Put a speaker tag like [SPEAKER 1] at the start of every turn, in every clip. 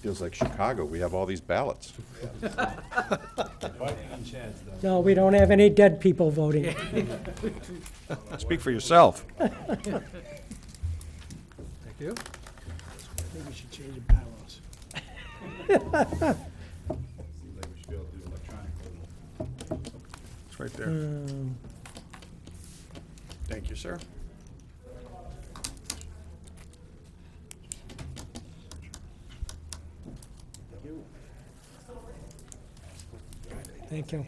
[SPEAKER 1] feels like Chicago. We have all these ballots.
[SPEAKER 2] Fighting chance, though.
[SPEAKER 3] No, we don't have any dead people voting.
[SPEAKER 1] Speak for yourself.
[SPEAKER 4] Thank you. I think we should change the bylaws.
[SPEAKER 2] Seems like we should be able to do electronic voting.
[SPEAKER 5] It's right there.
[SPEAKER 3] Um,
[SPEAKER 5] Thank you, sir.
[SPEAKER 3] Thank you.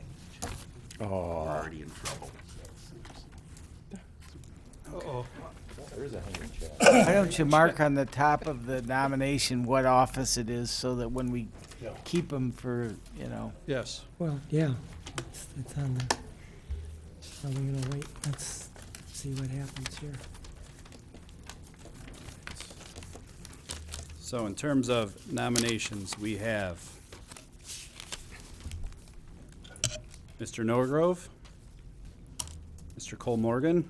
[SPEAKER 6] Why don't you mark on the top of the nomination what office it is, so that when we keep them for, you know,
[SPEAKER 4] Yes.
[SPEAKER 3] Well, yeah, it's, it's on there. So we're gonna wait, let's see what happens here.
[SPEAKER 4] So in terms of nominations, we have Mr. Norgrove, Mr. Cole Morgan,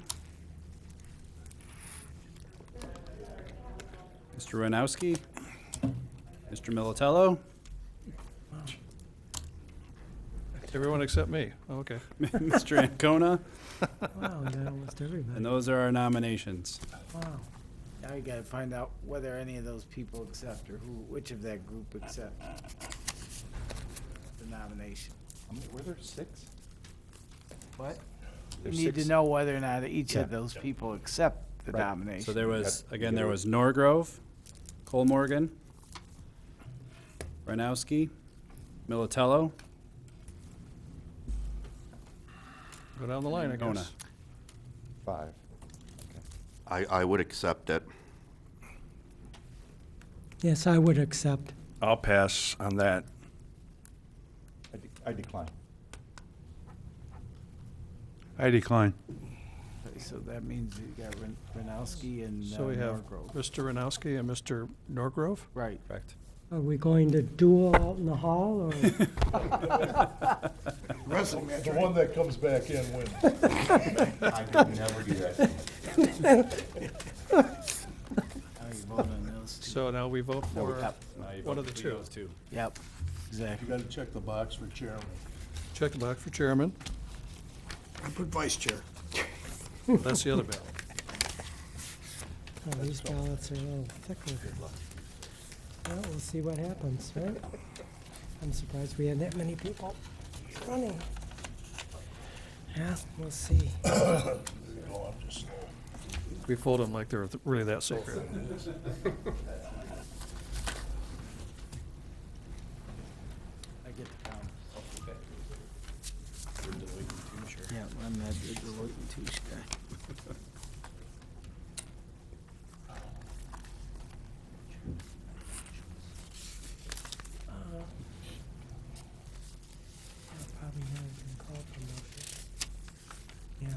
[SPEAKER 4] Mr. Renowski, Mr. Militello,
[SPEAKER 5] Everyone except me. Oh, Okay.
[SPEAKER 4] Mr. Ancona,
[SPEAKER 3] Wow, we got almost
[SPEAKER 4] and
[SPEAKER 3] everybody.
[SPEAKER 4] those are our nominations.
[SPEAKER 3] Wow.
[SPEAKER 6] now you gotta find out whether any of those people accept or who, which of that group accept the nomination.
[SPEAKER 1] Were there six?
[SPEAKER 6] What? You
[SPEAKER 1] There's
[SPEAKER 6] need to
[SPEAKER 1] six.
[SPEAKER 6] know whether or not each of those people accept the
[SPEAKER 1] Right.
[SPEAKER 6] nomination.
[SPEAKER 4] So there was,
[SPEAKER 1] Got-
[SPEAKER 4] again, there was Norgrove, Cole Morgan, Ranowski, Militello,
[SPEAKER 5] Go down the line, I
[SPEAKER 4] Ancona.
[SPEAKER 5] guess.
[SPEAKER 1] Five.
[SPEAKER 7] I, I would accept it.
[SPEAKER 3] Yes, I would accept.
[SPEAKER 5] I'll pass on that.
[SPEAKER 1] I de- I decline.
[SPEAKER 8] I decline.
[SPEAKER 6] So that means you got Ren- Renowski and uh,
[SPEAKER 5] So we have
[SPEAKER 6] Norgrove.
[SPEAKER 5] Mr. Renowski and Mr. Norgrove.
[SPEAKER 6] Right.
[SPEAKER 4] Correct.
[SPEAKER 3] Are we going to duel out in the hall or?
[SPEAKER 2] The one that comes back in wins.
[SPEAKER 7] I could never do that.
[SPEAKER 6] How you vote on those two?
[SPEAKER 5] So now we vote for
[SPEAKER 6] Yep.
[SPEAKER 5] one of the two.
[SPEAKER 6] Yep, exactly.
[SPEAKER 2] You gotta check the box for chairman.
[SPEAKER 5] Check the box for chairman.
[SPEAKER 4] I put vice chair. That's the other ballot.
[SPEAKER 3] Oh, these ballots are a little thicker. Well, we'll see what happens, right? I'm surprised we had that many people running. Yeah, we'll see.
[SPEAKER 5] We fold them like they're really that sacred.
[SPEAKER 6] I get the count. Yeah, I'm that Deloitte and Touche guy.
[SPEAKER 3] Uh, Probably not even called for motion. Yeah.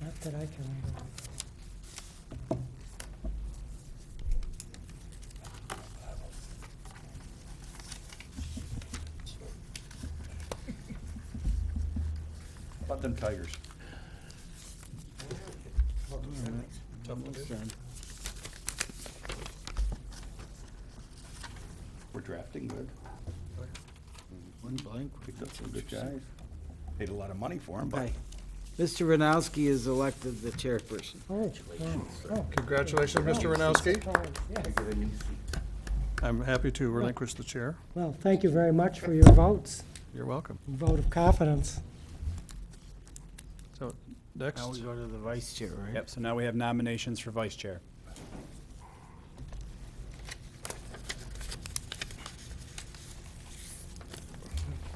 [SPEAKER 3] Not that I can remember.
[SPEAKER 1] About them Tigers.
[SPEAKER 6] Almost done.
[SPEAKER 1] We're drafting good.
[SPEAKER 6] One blank.
[SPEAKER 1] Picked up some good guys. Paid a lot of money for them, but
[SPEAKER 6] Okay. Mr. Renowski is elected the chairperson.
[SPEAKER 3] Oh, oh,
[SPEAKER 5] Congratulations, Mr. Renowski.
[SPEAKER 3] oh, yes.
[SPEAKER 5] I'm happy to relinquish the chair.
[SPEAKER 3] Well, thank you very much for your votes,
[SPEAKER 5] You're welcome.
[SPEAKER 3] vote of confidence.
[SPEAKER 5] So next,
[SPEAKER 6] Now we go to the vice chair, right?
[SPEAKER 4] Yep, so now we have nominations for vice chair.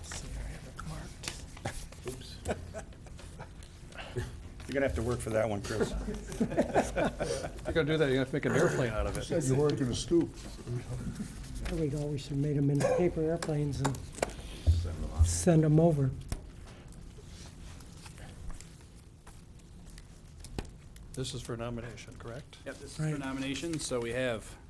[SPEAKER 3] See, I have it marked.
[SPEAKER 1] you're gonna have to work for that one, Chris.
[SPEAKER 5] you're gonna do that, you're gonna have to make an airplane out of it.
[SPEAKER 2] You're working a stoop.
[SPEAKER 3] There we go, we should have made them into paper airplanes and send them over.
[SPEAKER 5] This is for nomination, correct?
[SPEAKER 4] Yep, this is
[SPEAKER 3] Right.
[SPEAKER 4] for nominations, so we have